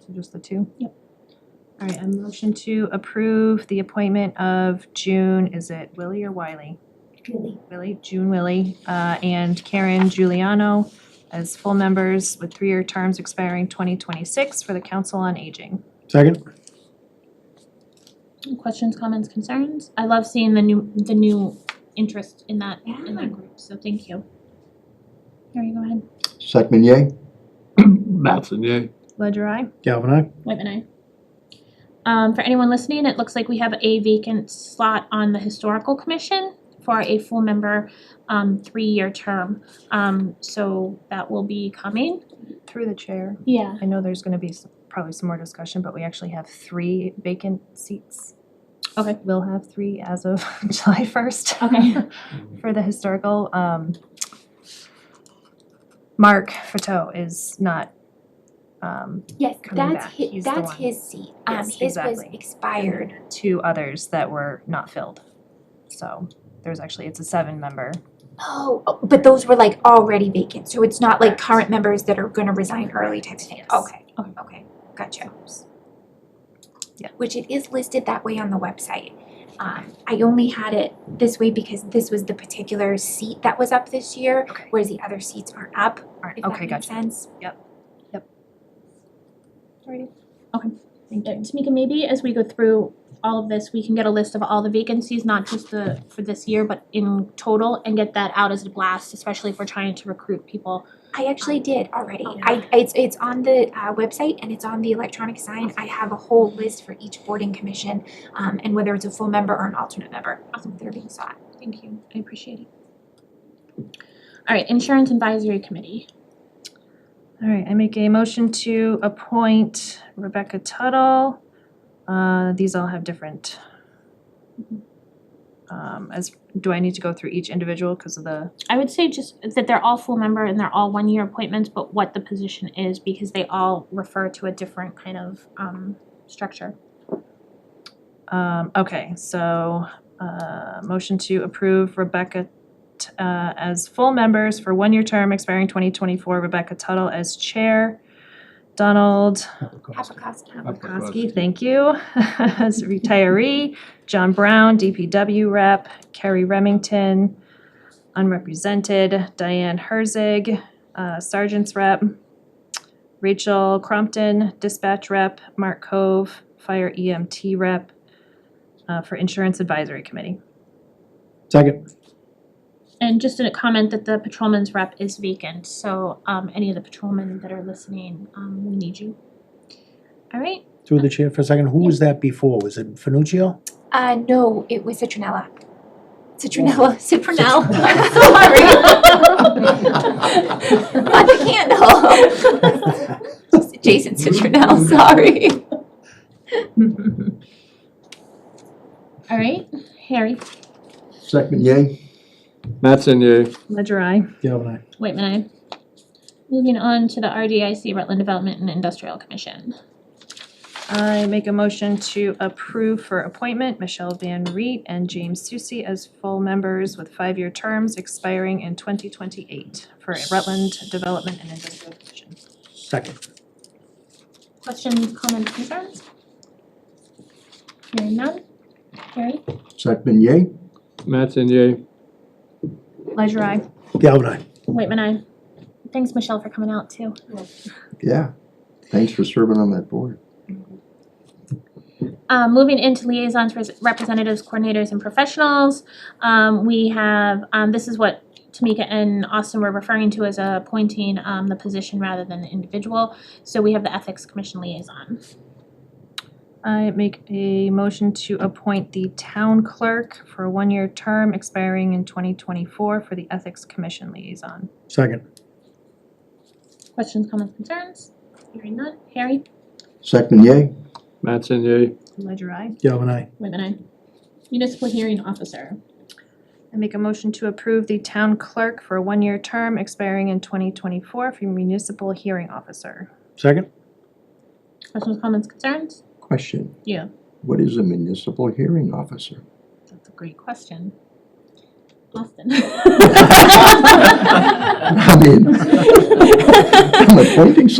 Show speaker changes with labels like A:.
A: So just the two?
B: Yep.
A: All right, a motion to approve the appointment of June, is it Willie or Wiley?
B: Really?
A: Willie, June Willie, uh, and Karen Giuliano as full members with three-year terms expiring twenty twenty-six for the Council on Aging.
C: Second?
B: Questions, comments, concerns? I love seeing the new, the new interest in that, in that group, so thank you. Harry, go ahead.
D: Second, yay?
E: Mattson, yay.
A: Ledger I.
C: Galvin I.
B: Whitman, aye. Um, for anyone listening, it looks like we have a vacant slot on the historical commission for a full member, um, three-year term. Um, so that will be coming.
A: Through the chair,
B: Yeah.
A: I know there's gonna be s- probably some more discussion, but we actually have three vacant seats.
B: Okay.
A: We'll have three as of July first.
B: Okay.
A: for the historical, um, Mark Fateau is not, um,
F: Yes,
A: coming back.
F: that's
A: He's
F: his,
A: the
F: that's
A: one.
F: his seat. Um,
A: Yes,
F: his was
A: exactly.
F: expired.
A: two others that were not filled. So there's actually, it's a seven member.
F: Oh, oh, but those were like already vacant, so it's not like
A: Correct.
F: current members that are gonna resign early type of thing.
A: Yes.
F: Okay, okay, gotcha.
A: Yeah.
F: Which it is listed that way on the website. Um, I only had it this way because this was the particular seat that was up this year,
A: Okay.
F: whereas the other seats aren't up,
A: Alright,
F: if that
A: okay,
F: makes
A: gotcha.
F: sense.
B: Uh, Tamika, maybe as we go through all of this, we can get a list of all the vacancies, not just the, for this year, but in total, and get that out as a blast, especially if we're trying to recruit people.
F: I actually did already.
B: Oh,
F: I, it's, it's on the uh, website and it's on the electronic sign. I have a whole list for each boarding commission, um, and whether it's a full member or an alternate member. Awesome, they're being sought.
B: Thank you, I appreciate it. All right, Insurance Advisory Committee.
A: All right, I make a motion to appoint Rebecca Tuttle. Uh, these all have different. Um, as, do I need to go through each individual because of the,
B: I would say just that they're all full member and they're all one-year appointments, but what the position is, because they all refer to a different kind of, um, structure.
A: um, okay, so, uh, motion to approve Rebecca t- uh, as full members for one-year term expiring twenty twenty-four, Rebecca Tuttle as chair. Donald
F: Apicasta.
A: Koski, thank you. As a retiree, John Brown, DPW rep, Carrie Remington, unrepresented, Diane Herzig, uh, sergeant's rep, Rachel Crompton, dispatch rep, Mark Cove, fire EMT rep, uh, for insurance advisory committee.
C: Second?
B: And just a comment that the patrolman's rep is vacant, so um any of the patrolmen that are listening, um we need you. All right,
C: Through the chair for a second. Who was that before? Was it Finuccio?
F: Uh, no, it was Citronella. Citronella, Citronelle.
C: Citronella.
F: Sorry. Not the candle. Just Jason Citronelle, sorry.
B: all right, Harry,
D: Second, yay?
E: Mattson, yay.
A: Ledger I.
C: Galvin I.
B: Whitman, I. Moving on to the RDIC Rutland Development and Industrial Commission.
A: I make a motion to approve for appointment Michelle Van Reet and James Susi as full members with five-year terms expiring in twenty twenty-eight for Rutland Development and Industrial Commission.
C: Second.
B: Questions, comments, concerns? Hearing none, Harry,
D: Second, yay?
E: Mattson, yay.
A: Ledger I.
C: Galvin I.
B: Whitman, I. Thanks, Michelle, for coming out too.
D: Yeah. Thanks for serving on that board.
B: Um, moving into liaisons, res- representatives, coordinators, and professionals, um, we have, um, this is what Tamika and Austin were referring to as uh, appointing, um, the position rather than the individual. So we have the Ethics Commission liaison.
A: I make a motion to appoint the town clerk for a one-year term expiring in twenty twenty-four for the Ethics Commission Liaison.
C: Second.
B: Questions, comments, concerns? Hearing none. Harry?
D: Second, yay?
E: Mattson, yay.
A: Ledger I.
C: Galvin I.
B: Whitman, aye. Municipal Hearing Officer.
A: I make a motion to approve the town clerk for a one-year term expiring in twenty twenty-four for municipal hearing officer.
C: Second?
B: Questions, comments, concerns?
D: Question.
B: Yeah.
D: What is a municipal hearing officer?
B: That's a great question. Austin?
D: I mean, I'm appointing